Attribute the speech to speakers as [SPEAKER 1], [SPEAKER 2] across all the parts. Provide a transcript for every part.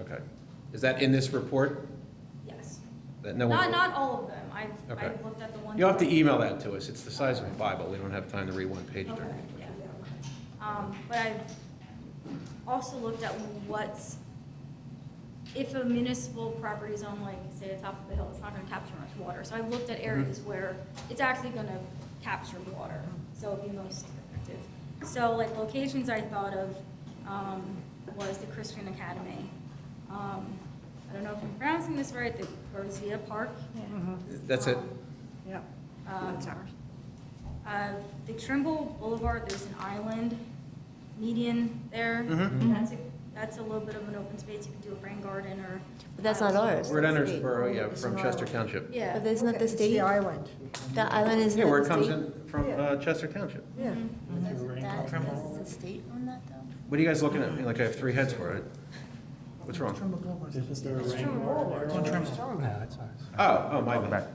[SPEAKER 1] Okay. Is that in this report?
[SPEAKER 2] Yes.
[SPEAKER 1] That no
[SPEAKER 2] Not,
[SPEAKER 1] one?
[SPEAKER 2] not all of them. I've,
[SPEAKER 1] Okay.
[SPEAKER 2] I've looked at the ones.
[SPEAKER 1] You'll have to
[SPEAKER 2] that-
[SPEAKER 1] email that to us. It's the size of a Bible. We don't have time to read one page during.
[SPEAKER 2] Okay, yeah. Um, but I've also looked at what's, if a municipal property is on like, say, the top of a hill, it's not gonna capture much water. So I've looked at
[SPEAKER 1] Mm-hmm.
[SPEAKER 2] areas where it's actually gonna capture water, so it'd be most effective. So like locations I thought of, um, was the Christian Academy. Um, I don't know if I'm pronouncing this right, the Rosita Park.
[SPEAKER 1] That's it?
[SPEAKER 2] Um,
[SPEAKER 3] Yep,
[SPEAKER 2] Um,
[SPEAKER 3] that's Mm-hmm, ours.
[SPEAKER 2] uh, The Trimble Boulevard, there's an island median there.
[SPEAKER 1] Mhm.
[SPEAKER 2] That's a, that's a little bit of an open space. You could do a rain garden or.
[SPEAKER 4] But that's not ours.
[SPEAKER 1] We're at
[SPEAKER 4] That's the-
[SPEAKER 1] Endersboro, yeah,
[SPEAKER 4] it's
[SPEAKER 1] from
[SPEAKER 4] not
[SPEAKER 1] Chester
[SPEAKER 4] ours.
[SPEAKER 1] Township.
[SPEAKER 2] Yeah.
[SPEAKER 4] But that's not
[SPEAKER 3] Okay,
[SPEAKER 4] the
[SPEAKER 3] it's
[SPEAKER 4] state,
[SPEAKER 3] The island,
[SPEAKER 4] the island is
[SPEAKER 1] Yeah,
[SPEAKER 4] not
[SPEAKER 1] where
[SPEAKER 4] the
[SPEAKER 1] it comes
[SPEAKER 4] state.
[SPEAKER 1] in from uh, Chester Township.
[SPEAKER 3] yeah.
[SPEAKER 4] Mm-hmm. That- Does the state own that though?
[SPEAKER 1] What are you guys looking at me like I have three heads for it? What's wrong?
[SPEAKER 5] Isn't there a
[SPEAKER 3] It's
[SPEAKER 5] rain
[SPEAKER 3] Trimble
[SPEAKER 5] guard?
[SPEAKER 3] Boulevard.
[SPEAKER 5] there?
[SPEAKER 6] Yeah, it's ours.
[SPEAKER 1] Oh, oh, my bad.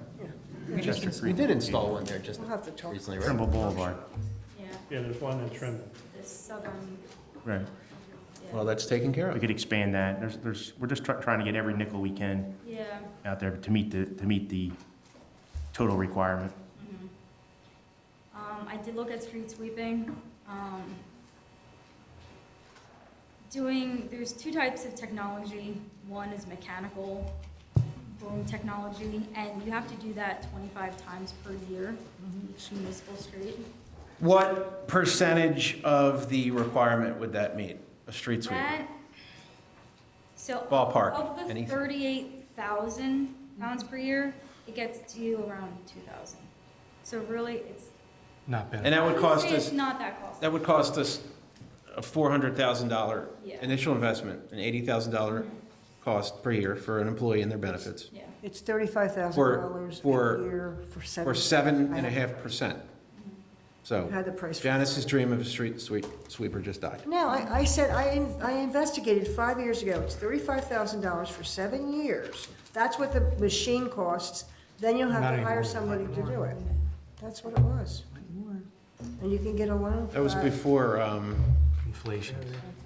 [SPEAKER 6] We just, ins- we did install one there just
[SPEAKER 3] We'll have to talk.
[SPEAKER 6] recently, right?
[SPEAKER 7] Trimble Boulevard.
[SPEAKER 2] Yeah,
[SPEAKER 5] Yeah, there's one in Trimble.
[SPEAKER 2] the southern.
[SPEAKER 7] Right.
[SPEAKER 1] Well, that's taken care
[SPEAKER 7] We
[SPEAKER 1] of.
[SPEAKER 7] could expand that. There's, there's, we're just try- trying to get every nickel we can
[SPEAKER 2] Yeah.
[SPEAKER 7] out there to meet the, to meet the total requirement.
[SPEAKER 2] mhm. Um, I did look at street sweeping. um, Doing, there's two types of technology. One is mechanical boom technology, and you have to do that 25 times per year, each municipal street.
[SPEAKER 1] What percentage of the requirement would that meet? A street sweeper?
[SPEAKER 2] That, so.
[SPEAKER 1] Ballpark,
[SPEAKER 2] Of the
[SPEAKER 1] anything.
[SPEAKER 2] thirty-eight thousand pounds per year, it gets to you around two thousand. So really, it's.
[SPEAKER 6] Not bad.
[SPEAKER 1] And that would
[SPEAKER 2] I'd
[SPEAKER 1] cost
[SPEAKER 2] say
[SPEAKER 1] us,
[SPEAKER 2] It's not that costly.
[SPEAKER 1] that would cost us a $400,000
[SPEAKER 2] Yeah.
[SPEAKER 1] initial investment, an $80,000 cost per year for an employee and their benefits,
[SPEAKER 2] Yeah,
[SPEAKER 3] It's thirty-five thousand dollars a
[SPEAKER 1] for-
[SPEAKER 3] year for seven.
[SPEAKER 1] or seven and a half percent. So
[SPEAKER 3] Had the price.
[SPEAKER 1] Janice's dream of a street sweep, sweeper just died.
[SPEAKER 3] No, I, I said, I, in- I investigated five years ago, it's thirty-five thousand dollars for seven years. That's what the machine costs, then you'll have
[SPEAKER 6] Not
[SPEAKER 3] to hire
[SPEAKER 6] anymore.
[SPEAKER 3] somebody to do it. That's what it was. And you can get a loan. for
[SPEAKER 1] That was before um,
[SPEAKER 6] Inflation.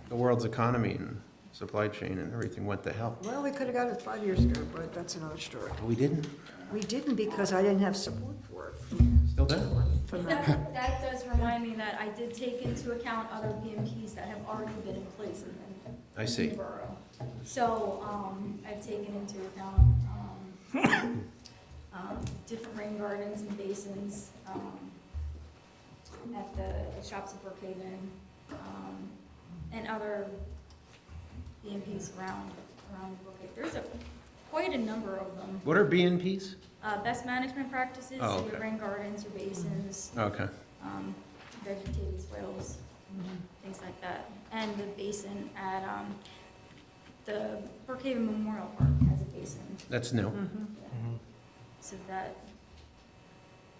[SPEAKER 1] the world's economy and supply chain and everything went to hell.
[SPEAKER 3] Well, we could have got it five years ago, but that's another story.
[SPEAKER 1] But We didn't,
[SPEAKER 3] We didn't because I didn't have support for it
[SPEAKER 1] still don't.
[SPEAKER 3] from that.
[SPEAKER 2] that, that does remind me that I did take into account other BMPs that have already been in place in the-
[SPEAKER 1] I see.
[SPEAKER 2] in the borough. So, um, I've taken into account, um, um, different rain gardens and basins, um, at the shops at Brookhaven, um, and other BMPs around, around Brookhaven. There's a, quite a number of them.
[SPEAKER 1] What are BNP's?
[SPEAKER 2] Uh, best management practices,
[SPEAKER 1] Oh,
[SPEAKER 2] your
[SPEAKER 1] okay.
[SPEAKER 2] rain gardens, your basins,
[SPEAKER 1] Okay.
[SPEAKER 2] um, vegetated swales, things like that. And the basin at, um, the Brookhaven Memorial Park has a basin,
[SPEAKER 1] That's new.
[SPEAKER 3] Mm-hmm.
[SPEAKER 2] so that,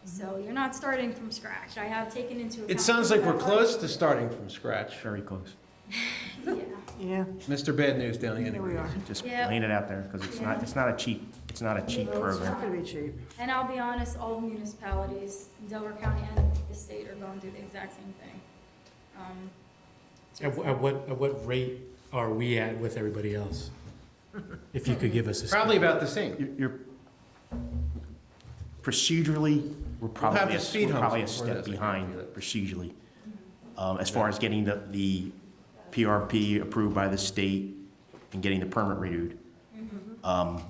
[SPEAKER 2] so you're not starting from scratch. I have taken into account.
[SPEAKER 1] It sounds like we're close to starting from scratch.
[SPEAKER 7] Very close.
[SPEAKER 2] Yeah,
[SPEAKER 3] Yeah,
[SPEAKER 1] Mr. Bad News down the
[SPEAKER 3] here we
[SPEAKER 1] integrated.
[SPEAKER 3] are.
[SPEAKER 7] Just
[SPEAKER 2] Yeah.
[SPEAKER 7] laying it out there because it's not,
[SPEAKER 2] Yeah.
[SPEAKER 7] it's not a cheap, it's not a cheap
[SPEAKER 3] Well, It's
[SPEAKER 7] program.
[SPEAKER 3] not gonna be cheap.
[SPEAKER 2] and I'll be honest, all municipalities, Delaware County and the state are going through the exact same thing. Um, so
[SPEAKER 6] At wh- at what, at what rate are we at with everybody else? If you could give us a.
[SPEAKER 1] Probably about the same.
[SPEAKER 7] You're- You're, procedurally, we're
[SPEAKER 1] have
[SPEAKER 7] probably,
[SPEAKER 1] the
[SPEAKER 7] a-
[SPEAKER 1] speed
[SPEAKER 7] we're
[SPEAKER 1] humps
[SPEAKER 7] probably a
[SPEAKER 1] before
[SPEAKER 7] step
[SPEAKER 1] this, I can
[SPEAKER 7] behind
[SPEAKER 1] do that.
[SPEAKER 7] procedurally. Um, as far as getting the, the PRP approved by the state and getting the permit renewed. Um,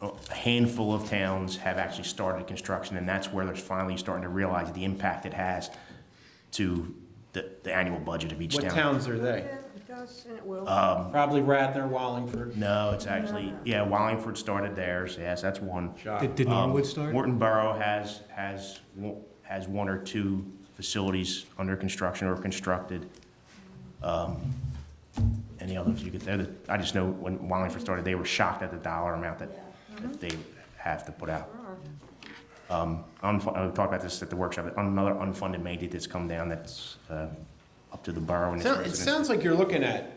[SPEAKER 7] a handful of towns have actually started construction, and that's where they're finally starting to realize the impact it has to the, the annual budget of each
[SPEAKER 1] What
[SPEAKER 7] town.
[SPEAKER 1] towns are
[SPEAKER 3] Yeah,
[SPEAKER 1] they?
[SPEAKER 3] it does, and it will.
[SPEAKER 7] Um,
[SPEAKER 1] Probably Radnor, Wallingford,
[SPEAKER 7] no, it's actually, yeah, Wallingford started theirs, yes, that's one.
[SPEAKER 1] Shop.
[SPEAKER 6] Did did Norwood start?
[SPEAKER 7] Um, Morton Borough has, has, one- has one or two facilities under construction or constructed. Um, Any others you could, they're the- I just know when Wallingford started, they were shocked at the dollar amount that,
[SPEAKER 2] Yeah.
[SPEAKER 7] that they have to put out.
[SPEAKER 3] Sure.
[SPEAKER 7] Um, unfu- uh, We talked about this at the workshop, another unfunded mandate that's come down that's uh, up to the borough and its
[SPEAKER 1] Sound- It
[SPEAKER 7] residents.
[SPEAKER 1] sounds like you're looking at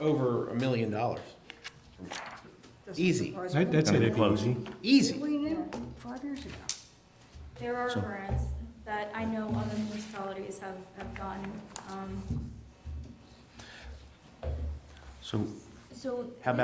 [SPEAKER 1] over a million dollars.
[SPEAKER 3] Doesn't
[SPEAKER 1] Easy.
[SPEAKER 3] surprise me.
[SPEAKER 6] That- That's
[SPEAKER 7] Gonna
[SPEAKER 6] it.
[SPEAKER 7] be close.
[SPEAKER 1] Easy.
[SPEAKER 3] We knew five years ago.
[SPEAKER 2] There are
[SPEAKER 7] So-
[SPEAKER 2] grants that I know other municipalities have, have gotten, um,
[SPEAKER 7] So
[SPEAKER 2] so
[SPEAKER 7] how about